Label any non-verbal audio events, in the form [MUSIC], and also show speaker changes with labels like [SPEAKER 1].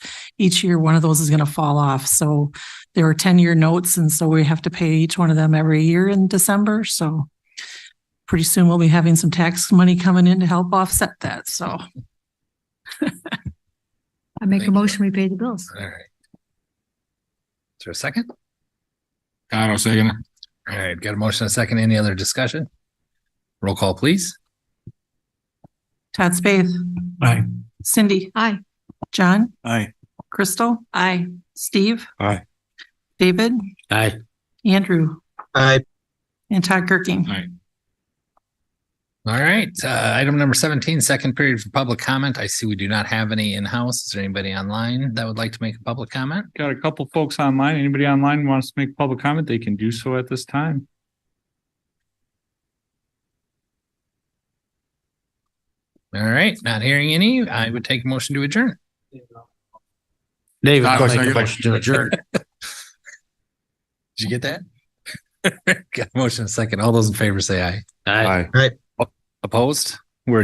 [SPEAKER 1] each year, one of those is going to fall off. So there were ten-year notes and so we have to pay each one of them every year in December. So pretty soon we'll be having some tax money coming in to help offset that. So
[SPEAKER 2] I make
[SPEAKER 3] Thank
[SPEAKER 2] a
[SPEAKER 3] you.
[SPEAKER 2] motion, we pay the bills.
[SPEAKER 3] All right. Is there a second?
[SPEAKER 4] Kyle second.
[SPEAKER 3] All right, got a motion, and a second. Any other discussion? Roll call, please.
[SPEAKER 1] Todd Spath,
[SPEAKER 4] Aye.
[SPEAKER 1] Cindy,
[SPEAKER 2] Aye.
[SPEAKER 1] John,
[SPEAKER 4] Aye.
[SPEAKER 1] Crystal. I, Steve.
[SPEAKER 4] Aye.
[SPEAKER 1] David,
[SPEAKER 3] Aye.
[SPEAKER 1] Andrew,
[SPEAKER 5] aye,
[SPEAKER 1] and Todd Kirking.
[SPEAKER 4] Aye.
[SPEAKER 3] All right, uh, item number seventeen, second period for public comment. I see we do not have any in-house. Is there anybody online that would like to make a public comment?
[SPEAKER 6] Got a couple folks online. Anybody online wants to make public comment, they can do so at this time.
[SPEAKER 3] All right, not hearing any. I would take a motion to adjourn.
[SPEAKER 5] David,
[SPEAKER 4] I'll
[SPEAKER 5] I'll make a
[SPEAKER 4] second.
[SPEAKER 5] motion to adjourn.
[SPEAKER 3] Did you get that? [LAUGHS] Got a motion, and a second. All those in favor say aye.
[SPEAKER 4] Aye.
[SPEAKER 3] Opposed?